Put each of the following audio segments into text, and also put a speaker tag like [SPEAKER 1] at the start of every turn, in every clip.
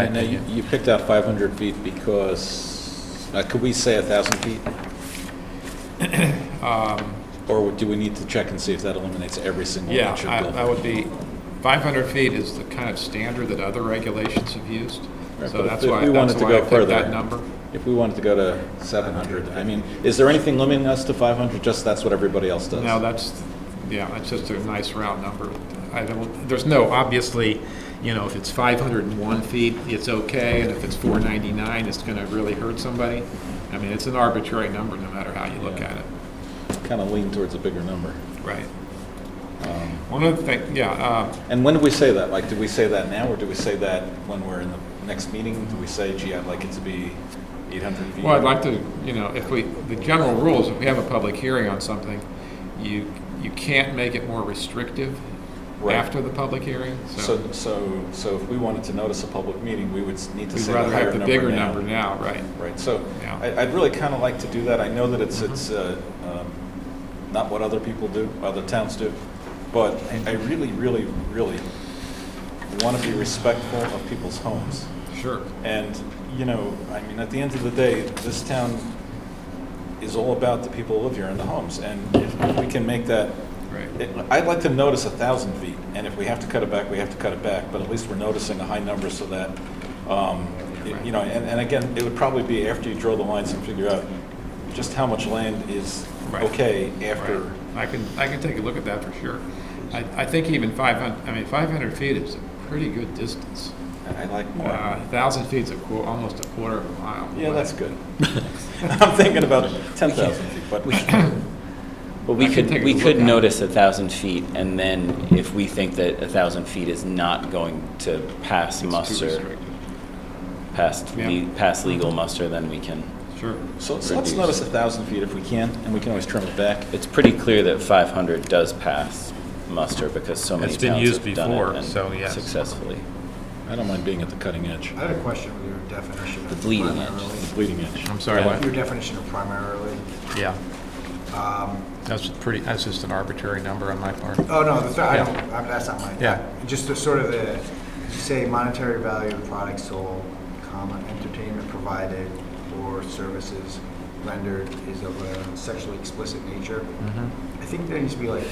[SPEAKER 1] I know you, you picked out 500 feet because, uh, could we say 1,000 feet? Or do we need to check and see if that eliminates every single
[SPEAKER 2] Um, Yeah,
[SPEAKER 1] inch
[SPEAKER 2] I
[SPEAKER 1] of
[SPEAKER 2] I
[SPEAKER 1] building?
[SPEAKER 2] would be, 500 feet is the kind of standard that other regulations have used,
[SPEAKER 1] Right,
[SPEAKER 2] so
[SPEAKER 1] but
[SPEAKER 2] that's
[SPEAKER 1] if
[SPEAKER 2] why,
[SPEAKER 1] we wanted
[SPEAKER 2] that's
[SPEAKER 1] to
[SPEAKER 2] why I
[SPEAKER 1] go
[SPEAKER 2] picked
[SPEAKER 1] further-
[SPEAKER 2] that number.
[SPEAKER 1] If we wanted to go to 700, I mean, is there anything limiting us to 500? Just that's what everybody else does?
[SPEAKER 2] No, that's, yeah, that's just a nice round number. I don't, there's no, obviously, you know, if it's 501 feet, it's okay, and if it's 499, it's going to really hurt somebody. I mean, it's an arbitrary number, no matter how you look
[SPEAKER 1] Yeah.
[SPEAKER 2] at it.
[SPEAKER 1] Kind of lean towards a bigger number. Um,
[SPEAKER 2] Right. One other thing, yeah, uh,
[SPEAKER 1] And when do we say that? Like, do we say that now, or do we say that when we're in the next meeting? Do we say, gee, I'd like it to be 800 feet?
[SPEAKER 2] Well, I'd like to, you know, if we, the general rules, if we have a public hearing on something, you, you can't make it more restrictive
[SPEAKER 1] Right.
[SPEAKER 2] after the public hearing, so
[SPEAKER 1] So, so, so if we wanted to notice a public meeting, we would s- need to
[SPEAKER 2] we'd
[SPEAKER 1] say the
[SPEAKER 2] rather
[SPEAKER 1] higher
[SPEAKER 2] have the bigger
[SPEAKER 1] number
[SPEAKER 2] number
[SPEAKER 1] now.
[SPEAKER 2] now, right?
[SPEAKER 1] Right, so
[SPEAKER 2] Yeah. Mm-hmm.
[SPEAKER 1] I- I'd really kind of like to do that. I know that it's, it's uh, um, not what other people do, other towns do, but I- I really, really, really want to be respectful of people's homes.
[SPEAKER 2] Sure.
[SPEAKER 1] And, you know, I mean, at the end of the day, this town is all about the people who live here and the homes. And if we can make that,
[SPEAKER 2] Right,
[SPEAKER 1] it- I'd like to notice a thousand feet, and if we have to cut it back, we have to cut it back, but at least we're noticing a high number so that, um, y- you know, and, and again, it would probably be after you draw the lines and figure out just how much land is
[SPEAKER 2] Right.
[SPEAKER 1] okay
[SPEAKER 2] right.
[SPEAKER 1] after.
[SPEAKER 2] I can, I can take a look at that for sure. I, I think even five hundred. I mean, five hundred feet is a pretty good distance.
[SPEAKER 1] I I like more.
[SPEAKER 2] Uh, thousand feet's a qu, almost a quarter of a mile.
[SPEAKER 1] Yeah, that's good. I'm thinking about ten thousand feet, but.
[SPEAKER 3] Well, we
[SPEAKER 2] I can take
[SPEAKER 3] could,
[SPEAKER 2] a
[SPEAKER 3] we
[SPEAKER 2] look
[SPEAKER 3] could
[SPEAKER 2] at it.
[SPEAKER 3] notice a thousand feet, and then if we think that a thousand feet is not going to pass
[SPEAKER 2] It's too
[SPEAKER 3] muster,
[SPEAKER 2] restrictive.
[SPEAKER 3] past,
[SPEAKER 2] Yeah.
[SPEAKER 3] le- past legal muster, then we can.
[SPEAKER 2] Sure.
[SPEAKER 1] So so let's notice a thousand feet if we can, and we can always trim it back.
[SPEAKER 3] It's pretty clear that five hundred does pass muster, because so many
[SPEAKER 2] It's been
[SPEAKER 3] towns
[SPEAKER 2] used
[SPEAKER 3] have done
[SPEAKER 2] before,
[SPEAKER 3] it and
[SPEAKER 2] so yes.
[SPEAKER 3] successfully.
[SPEAKER 1] I don't mind being at the cutting edge,
[SPEAKER 4] I had a question with your definition
[SPEAKER 3] The
[SPEAKER 4] of
[SPEAKER 3] bleeding edge.
[SPEAKER 4] primarily.
[SPEAKER 1] the bleeding edge.
[SPEAKER 2] I'm sorry, what?
[SPEAKER 4] Your definition of primarily.
[SPEAKER 2] Yeah,
[SPEAKER 4] Um,
[SPEAKER 2] that's pretty, that's just an arbitrary number on my part.
[SPEAKER 4] Oh, no, that's, not- I
[SPEAKER 2] Yeah.
[SPEAKER 4] don't, I'm- that's not mine.
[SPEAKER 2] Yeah.
[SPEAKER 4] Just the sort of the, you say monetary value of product sold, comma, entertainment provided or services rendered is of a sexually explicit nature.
[SPEAKER 2] Mm-hmm.
[SPEAKER 4] I think there needs to be like,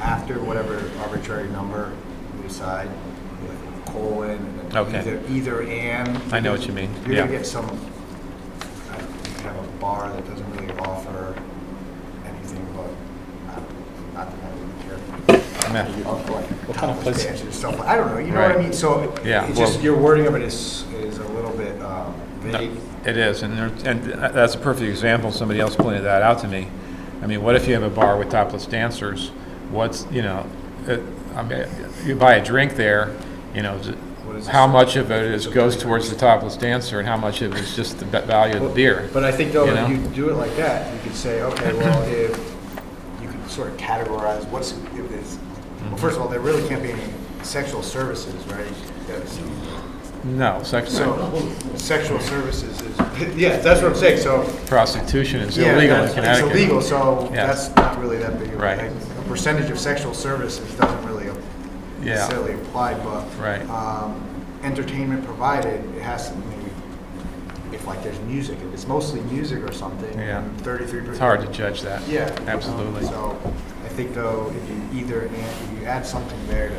[SPEAKER 4] after whatever arbitrary number we decide, like colon, and then
[SPEAKER 2] Okay.
[SPEAKER 4] either, either and.
[SPEAKER 2] I know what you mean.
[SPEAKER 4] You're
[SPEAKER 2] Yeah.
[SPEAKER 4] gonna get some, I don't know, you have a bar that doesn't really offer anything but, uh, not that I really care.
[SPEAKER 2] Yeah.
[SPEAKER 4] Of like,
[SPEAKER 1] What kind of place-
[SPEAKER 4] tapas, dancing, stuff, like- I don't know, you know what I
[SPEAKER 2] Right.
[SPEAKER 4] mean? So
[SPEAKER 2] Yeah,
[SPEAKER 4] it's just,
[SPEAKER 2] well-
[SPEAKER 4] your wording of it is, is a little bit um,
[SPEAKER 2] No,
[SPEAKER 4] vague.
[SPEAKER 2] It is, and there, and that's a perfect example, somebody else pointed that out to me. I mean, what if you have a bar with topless dancers? What's, you know, it- I mean, you buy a drink there, you know, is it-
[SPEAKER 4] What is
[SPEAKER 2] how
[SPEAKER 4] this?
[SPEAKER 2] much of it is, goes towards the topless dancer and how much of it is just the be- value of the beer?
[SPEAKER 4] But I think though,
[SPEAKER 2] you know?
[SPEAKER 4] if you do it like that, you could say, okay, well, if, you could sort of categorize what's, if it's,
[SPEAKER 2] Mm-hmm.
[SPEAKER 4] well, first of all, there really can't be any sexual services, right? That's-
[SPEAKER 2] No, sex,
[SPEAKER 4] So sexual services is, yeah, that's what I'm saying, so
[SPEAKER 2] prostitution is
[SPEAKER 4] Yeah,
[SPEAKER 2] illegal in
[SPEAKER 4] that's-
[SPEAKER 2] Connecticut.
[SPEAKER 4] It's illegal, so
[SPEAKER 2] Yeah.
[SPEAKER 4] that's not really that big of a.
[SPEAKER 2] Right.
[SPEAKER 4] A percentage of sexual services doesn't really
[SPEAKER 2] Yeah,
[SPEAKER 4] necessarily apply, but.
[SPEAKER 2] Right.
[SPEAKER 4] um, Entertainment provided, it has to, maybe, if like there's music, if it's mostly music or something.
[SPEAKER 2] Yeah.
[SPEAKER 4] Thirty-three.
[SPEAKER 2] it's hard to judge that.
[SPEAKER 4] Yeah. you know,
[SPEAKER 2] Absolutely.
[SPEAKER 4] So I think though, if you either, and if you add something there to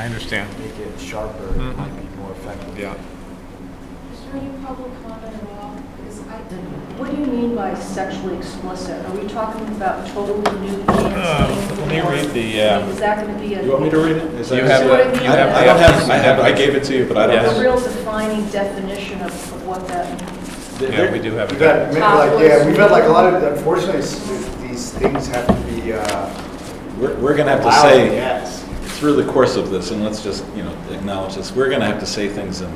[SPEAKER 2] I understand.
[SPEAKER 4] make it sharper,
[SPEAKER 2] Mhm.
[SPEAKER 4] it might be more effective.
[SPEAKER 2] Yeah.
[SPEAKER 5] Is there any public comment at all? Because I, what do you mean by sexually explicit? Are we talking about totally nude
[SPEAKER 1] Uh,
[SPEAKER 5] dancing?
[SPEAKER 2] let me read the, uh,
[SPEAKER 5] I mean, Is that going to be a?
[SPEAKER 1] You want me to read it? Is that-
[SPEAKER 2] You have
[SPEAKER 5] what I mean?
[SPEAKER 2] you
[SPEAKER 1] I don't I don't have, I have, I gave it to you, but I don't
[SPEAKER 2] Yes.
[SPEAKER 5] A
[SPEAKER 1] have.
[SPEAKER 5] real defining definition of of what that means?
[SPEAKER 2] Yeah, we do have
[SPEAKER 4] We've
[SPEAKER 2] it.
[SPEAKER 4] had, maybe like,
[SPEAKER 5] Topless.
[SPEAKER 4] yeah, we've had like a lot of, unfortunately, s- these things have to be, uh,
[SPEAKER 1] We're, we're gonna have to
[SPEAKER 4] Wow,
[SPEAKER 1] say,
[SPEAKER 4] yes.
[SPEAKER 1] through the course of this, and let's just, you know, acknowledge this, we're gonna have to say things and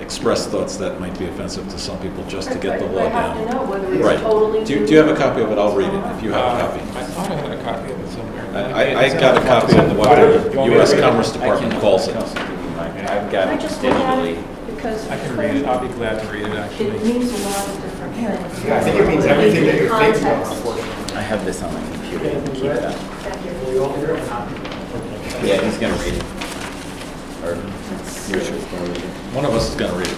[SPEAKER 1] express thoughts that might be offensive to some people just to get the law
[SPEAKER 5] I have to
[SPEAKER 1] down.
[SPEAKER 5] know whether
[SPEAKER 1] Right.
[SPEAKER 5] it's totally.
[SPEAKER 1] Do you,
[SPEAKER 5] nude
[SPEAKER 1] do you have a
[SPEAKER 5] or
[SPEAKER 1] copy of it? I'll read it
[SPEAKER 5] not.
[SPEAKER 1] if you have a
[SPEAKER 2] Uh,
[SPEAKER 1] copy.
[SPEAKER 2] I thought I had a copy of it somewhere.
[SPEAKER 1] I, I- I got a copy of what the US Commerce Department calls it.
[SPEAKER 3] I've
[SPEAKER 5] Can
[SPEAKER 3] got
[SPEAKER 5] I
[SPEAKER 3] it
[SPEAKER 5] just look at
[SPEAKER 3] digitally.
[SPEAKER 5] it? Because.
[SPEAKER 2] I can read it, I'll be glad to read it,
[SPEAKER 5] It
[SPEAKER 2] actually.
[SPEAKER 5] means a lot of different things.
[SPEAKER 4] Yeah, I think it means everything that you're thinking of,
[SPEAKER 5] Context.
[SPEAKER 4] unfortunately.
[SPEAKER 3] I have this on my computer, you can keep that.
[SPEAKER 5] Thank you.
[SPEAKER 3] Yeah, he's gonna read it. or?
[SPEAKER 5] Let's
[SPEAKER 3] Your
[SPEAKER 5] see.
[SPEAKER 3] choice, don't worry.
[SPEAKER 1] One of us is going to read it.